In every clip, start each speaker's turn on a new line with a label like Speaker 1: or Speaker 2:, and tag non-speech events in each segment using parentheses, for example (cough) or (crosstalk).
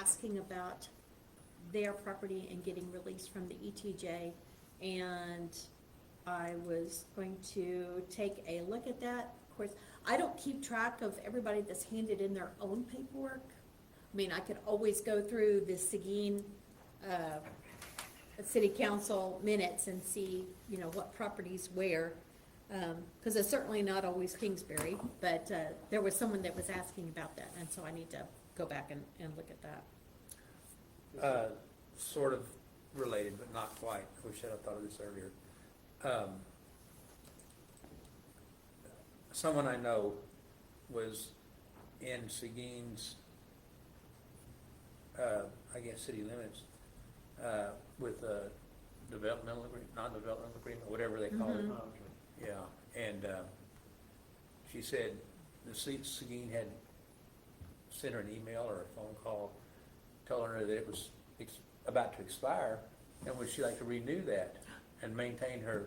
Speaker 1: asking about their property and getting release from the ETJ. And I was going to take a look at that. Of course, I don't keep track of everybody that's handed in their own paperwork. I mean, I could always go through the Seguin, uh, city council minutes and see, you know, what properties where. Um, cause it's certainly not always Kingsbury, but, uh, there was someone that was asking about that, and so I need to go back and, and look at that.
Speaker 2: Uh, Sort of related, but not quite. I wish I'd have thought of this earlier. Um, Someone I know was in Seguin's, uh, I guess, city limits, uh, with a developmental agreement, non-developmental agreement, whatever they call it. Yeah, and, uh, she said the Se- Seguin had sent her an email or a phone call telling her that it was ex- about to expire, and would she like to renew that and maintain her,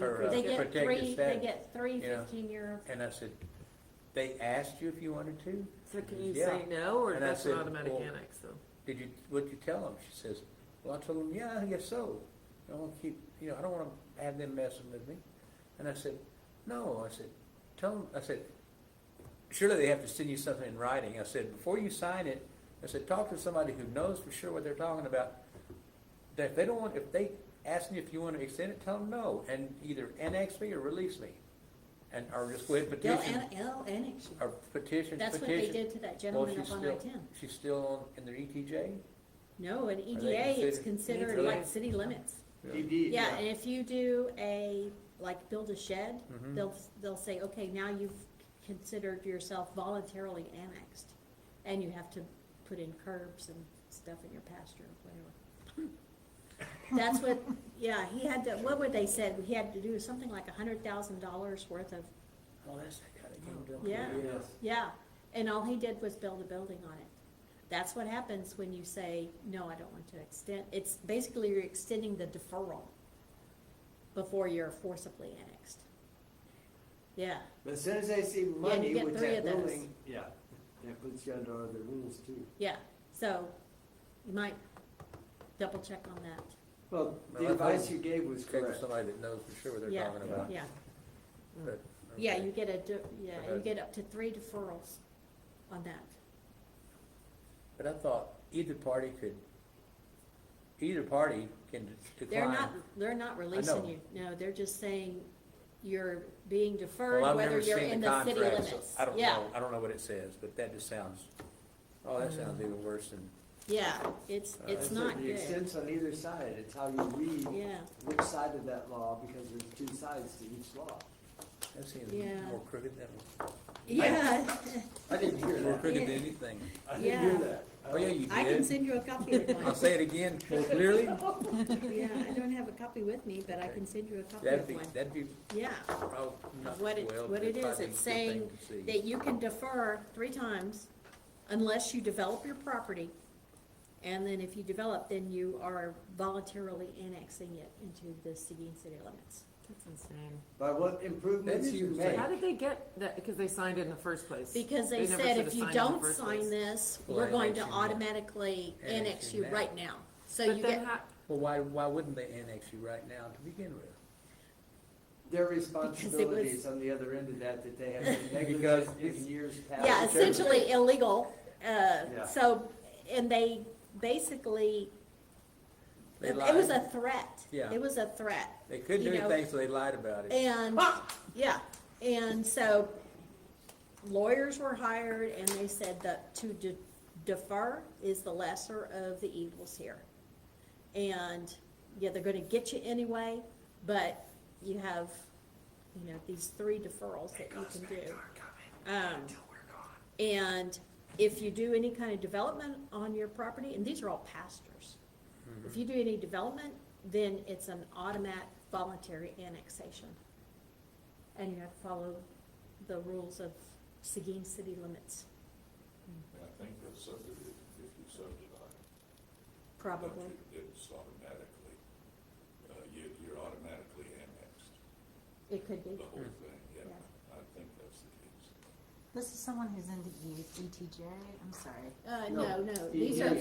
Speaker 2: her uh,
Speaker 1: They
Speaker 2: protected
Speaker 1: get three,
Speaker 2: status?
Speaker 1: they get three
Speaker 2: yeah.
Speaker 1: fifteen-year,
Speaker 2: And I said, they asked you if you wanted to?
Speaker 3: So can you
Speaker 2: Yeah.
Speaker 3: say no, or
Speaker 2: And I
Speaker 3: that's an
Speaker 2: said,
Speaker 3: automatic
Speaker 2: well-
Speaker 3: annex, so.
Speaker 2: Did you, what'd you tell them? She says, well, I told them, yeah, I guess so. I don't wanna keep, you know, I don't wanna have them messing with me. And I said, no, I said, tell them, I said, surely they have to send you something in writing. I said, before you sign it, I said, talk to somebody who knows for sure what they're talking about. That if they don't want, if they ask me if you wanna extend it, tell them no, and either annex me or release me. And, or just go ahead and
Speaker 1: they'll,
Speaker 2: petition,
Speaker 1: an- they'll annex you.
Speaker 2: or petition, petition.
Speaker 1: That's what they did to that
Speaker 2: Well,
Speaker 1: gentleman
Speaker 2: she's
Speaker 1: up on
Speaker 2: still-
Speaker 1: I-10.
Speaker 2: She's still on, in their E ETJ?
Speaker 1: No, an E EDA is
Speaker 2: considered- E
Speaker 1: considered
Speaker 2: Really?
Speaker 1: like city limits.
Speaker 4: He
Speaker 2: E
Speaker 4: did,
Speaker 1: Yeah, and
Speaker 4: yeah.
Speaker 1: if you do a, like, build a shed,
Speaker 2: Mhm.
Speaker 1: they'll, they'll say, okay, now you've considered yourself voluntarily annexed. And you have to put in curbs and stuff in your pasture, whatever.
Speaker 2: (laughs)
Speaker 1: That's what, yeah, he had to, what would they said, he had to do something like a hundred thousand dollars worth of,
Speaker 2: Oh, that's that kind of game,
Speaker 1: yeah.
Speaker 4: Yes.
Speaker 1: yeah. And all he did was build a building on it. That's what happens when you say, no, I don't want to extend, it's basically you're extending the deferral before you're forcibly annexed. Yeah,
Speaker 4: But as soon as they see
Speaker 1: you
Speaker 4: money
Speaker 1: get
Speaker 4: with
Speaker 1: three
Speaker 4: that
Speaker 1: of those.
Speaker 4: building, yeah, that puts you under other rules too.
Speaker 1: yeah, so you might double check on that,
Speaker 4: Well,
Speaker 2: Well,
Speaker 4: the
Speaker 2: I
Speaker 4: advice
Speaker 2: think-
Speaker 4: you gave was
Speaker 2: Check with
Speaker 4: correct.
Speaker 2: somebody that knows for sure what they're
Speaker 1: yeah,
Speaker 2: talking about.
Speaker 1: yeah.
Speaker 2: But,
Speaker 1: Yeah,
Speaker 2: okay.
Speaker 1: you get a, de- yeah, you
Speaker 2: Okay.
Speaker 1: get up to three deferrals on that.
Speaker 2: But I thought either party could, either party can de-
Speaker 1: They're not,
Speaker 2: decline.
Speaker 1: they're not releasing
Speaker 2: know.
Speaker 1: you, no, they're just saying you're being deferred,
Speaker 2: Well, I've
Speaker 1: whether
Speaker 2: never
Speaker 1: you're
Speaker 2: seen
Speaker 1: in the city
Speaker 2: contract,
Speaker 1: limits.
Speaker 2: so I don't
Speaker 1: Yeah.
Speaker 2: know, I don't know what it says, but that just sounds, oh, that sounds even worse than,
Speaker 1: Yeah, it's, it's
Speaker 2: Uh,
Speaker 4: That's it.
Speaker 1: not
Speaker 4: The
Speaker 1: good,
Speaker 4: extents on either side, it's how you read
Speaker 1: yeah,
Speaker 4: which side of that law, because there's two sides to each law.
Speaker 2: that seems
Speaker 1: Yeah.
Speaker 2: more crooked than,
Speaker 1: yeah, (laughs)
Speaker 4: I didn't hear
Speaker 2: more
Speaker 4: that.
Speaker 2: crooked than anything.
Speaker 4: I didn't hear
Speaker 1: Yeah.
Speaker 4: that.
Speaker 2: Oh, yeah, you
Speaker 1: I can
Speaker 2: did.
Speaker 1: send you a copy
Speaker 2: (laughs)
Speaker 1: of
Speaker 2: I'll
Speaker 1: mine,
Speaker 2: say
Speaker 1: (laughs)
Speaker 2: it again more clearly.
Speaker 1: yeah, I don't have a copy with me, but I can send you a copy
Speaker 2: That'd
Speaker 1: of
Speaker 2: be,
Speaker 1: mine,
Speaker 2: that'd be,
Speaker 1: yeah.
Speaker 2: oh, not
Speaker 1: What
Speaker 2: well,
Speaker 1: it-
Speaker 2: but
Speaker 1: what it
Speaker 2: it'd
Speaker 1: is, it's
Speaker 2: probably be a good
Speaker 1: saying
Speaker 2: thing to see.
Speaker 1: that you can defer three times unless you develop your property. And then if you develop, then you are voluntarily annexing it into the Seguin city limits.
Speaker 3: That's insane.
Speaker 4: By what improvements
Speaker 2: That is
Speaker 4: you
Speaker 2: insane.
Speaker 4: make.
Speaker 3: How did they get that, because they signed it in the first place?
Speaker 1: Because they
Speaker 3: never
Speaker 1: said
Speaker 3: should've
Speaker 1: if you
Speaker 3: signed it in the
Speaker 1: don't
Speaker 3: first
Speaker 1: sign
Speaker 3: place.
Speaker 1: this,
Speaker 2: Well,
Speaker 1: we're going to
Speaker 2: annexing now.
Speaker 1: automatically annex
Speaker 2: Annexing
Speaker 1: you
Speaker 2: now.
Speaker 1: right now. So
Speaker 3: But
Speaker 1: you
Speaker 3: then
Speaker 1: get,
Speaker 3: how,
Speaker 2: Well, why, why wouldn't they annex you right now to begin with?
Speaker 4: Their
Speaker 1: (laughs) was-
Speaker 4: responsibilities on the other end of that, that they have (laughs) been
Speaker 2: Because
Speaker 4: negligent in
Speaker 2: it's-
Speaker 4: years past.
Speaker 1: yeah, essentially illegal, uh,
Speaker 4: Yeah.
Speaker 1: so, and they basically,
Speaker 2: They
Speaker 1: it was
Speaker 2: lied.
Speaker 1: a threat.
Speaker 2: Yeah.
Speaker 1: It was a threat.
Speaker 2: They couldn't do
Speaker 1: you know-
Speaker 2: anything, so they lied about it.
Speaker 1: And, yeah, and so lawyers were hired and they said that to de- defer is the lesser of the evils here. And, yeah, they're gonna get you anyway, but you have, you know, these three deferrals that you can do. Um, and if you do any kind of development on your property, and these are all pastures. If you do any development, then it's an automatic voluntary annexation. And you have to follow the rules of Seguin city limits,
Speaker 5: And I think that's subdivision, if you subdivide.
Speaker 1: probably.
Speaker 5: It's automatically, uh, you, you're automatically annexed,
Speaker 1: It could be,
Speaker 5: the whole thing, yeah,
Speaker 1: Yeah.
Speaker 5: I think that's the case.
Speaker 6: This is someone who's into E- ETJ, I'm sorry.
Speaker 1: Uh,
Speaker 4: No.
Speaker 1: no, no, these are